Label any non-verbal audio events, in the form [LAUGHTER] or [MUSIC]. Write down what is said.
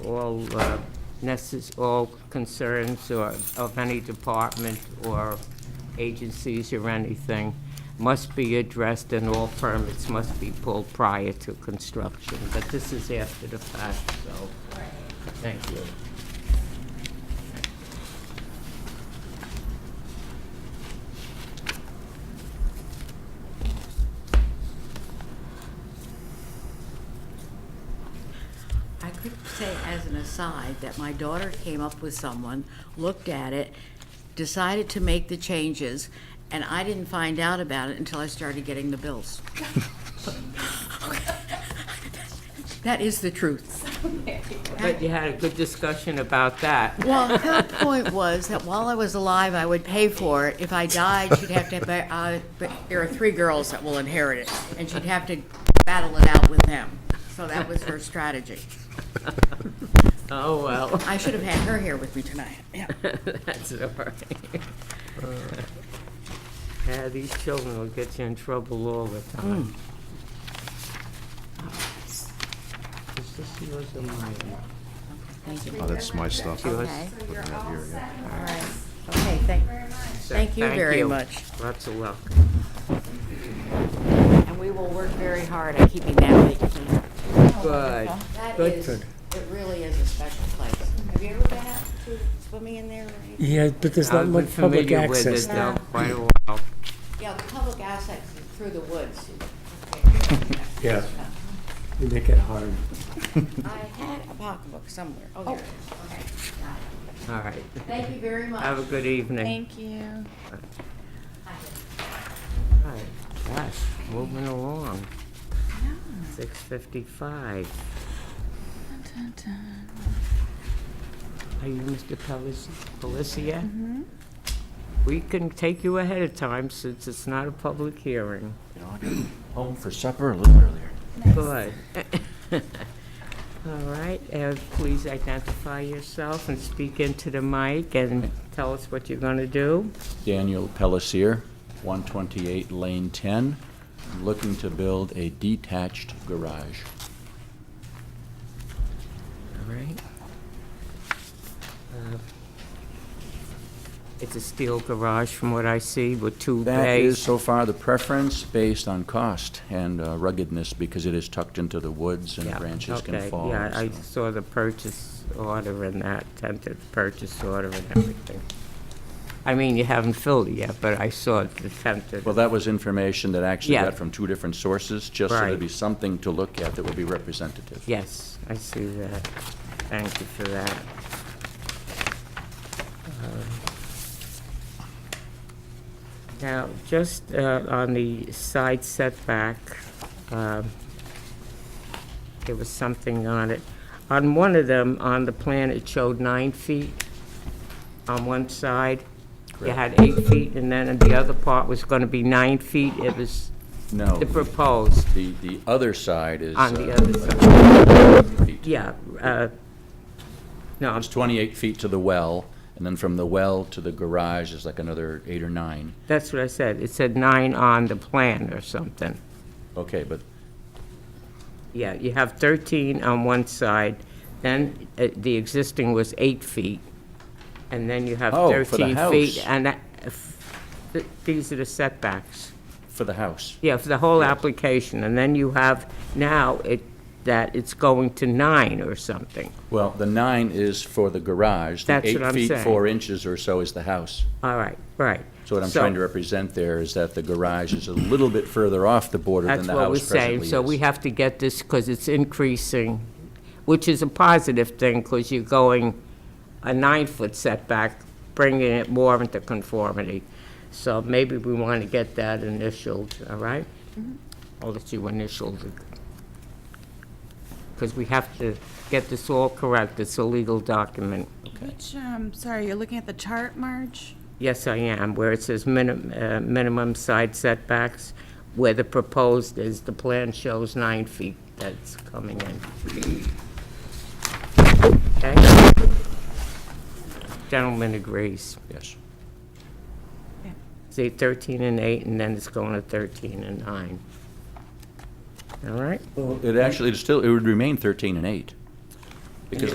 all uh, necess, all concerns or of any department or agencies or anything must be addressed and all permits must be pulled prior to construction. But this is after the fact, so, thank you. I could say as an aside that my daughter came up with someone, looked at it, decided to make the changes, and I didn't find out about it until I started getting the bills. [LAUGHS] That is the truth. But you had a good discussion about that. [LAUGHS] Well, her point was that while I was alive, I would pay for it. If I died, she'd have to, ba- uh, but there are three girls that will inherit it, and she'd have to battle it out with them. So that was her strategy. [LAUGHS] Oh, well, I should have had her here with me tonight. [LAUGHS] Yeah. [LAUGHS] that's all right. Yeah, Uh, these children will get you in trouble all the Mm, time. Is this yours or mine? Thank you. Oh, that's my stuff. Yours? Okay. Looking out here, yeah. All right. Okay, thank, thank you very much. Lots of luck. And we will work very hard at keeping that vacancy. Good. That Good. is, it really is a special place. Have you ever been out to swimming in there or anything? Yeah, but there's not I've been much public familiar with access it there. though quite a while. Yeah, the public access is through the woods. Yeah. They make it hard. I had a pocketbook somewhere. Oh, there it is. Okay. got it. All right. Thank you very much. Have a good evening. Thank you. All right. Gosh, moving along. Six fifty-five. Are you Mr. Pelis- Pelisiak? Mm-hmm. We can take you ahead of time since it's not a public hearing. You know, I got home for supper a little earlier. Good. [LAUGHS] All right, uh, please identify yourself and speak into the mic and tell us what you're going to do. Daniel Pellissier, 128 Lane 10. I'm looking to build a detached garage. All right. Uh, It's a steel garage from what I see with two bays. That is so far the preference based on cost and uh, ruggedness because it is tucked into the woods and Yeah, branches okay, can fall. Yeah, I so- saw the purchase order and that, tentative purchase order and everything. I mean, you haven't filled it yet, but I saw the tentative. Well, that was information that I actually Yeah. got from two different sources, just so Right. there'd be something to look at that would be representative. Yes, I see that. Thank you for that. Um, Now, just uh, on the side setback, um, there was something on it. On one of them, on the plan, it showed nine feet on one side. You had eight feet, and then the other part was going to be nine feet. It was No, the proposed the, the other side is. on the uh, other side. feet. Yeah, uh, no, I'm It's 28 feet to the well, and then from the well to the garage is like another eight or nine. That's what I said. It said nine on the plan or something. Okay, but Yeah, you have 13 on one side, then uh, the existing was eight feet, and then you have Oh, for the 13 feet. house. And that- if- th- these are the setbacks. for the house, Yeah, for the whole application. And then you have now it, that it's going to nine or something. well, the nine is for the garage. That's what I'm The eight saying. feet, four inches or so is the house. All right, right. So what I'm trying to represent there is that the garage is a little bit further off the border than That's the what we're house saying, presently so we is. have to get this, because it's increasing, which is a positive thing, because you're going a nine-foot setback, bringing it more into conformity. So maybe we want to get that initialed, all right? I'll let you initial the, because we have to get this all correct, it's a legal document. Which, um, sorry, you're looking at the chart, Marge? Yes, I am, where it says minim- uh, minimum side setbacks, where the proposed is, the plan shows nine feet that's coming in. Okay? Gentleman agrees. Yes. See, 13 and 8, and then it's going to 13 and 9. All right? It actually, it still, it would remain 13 and eight.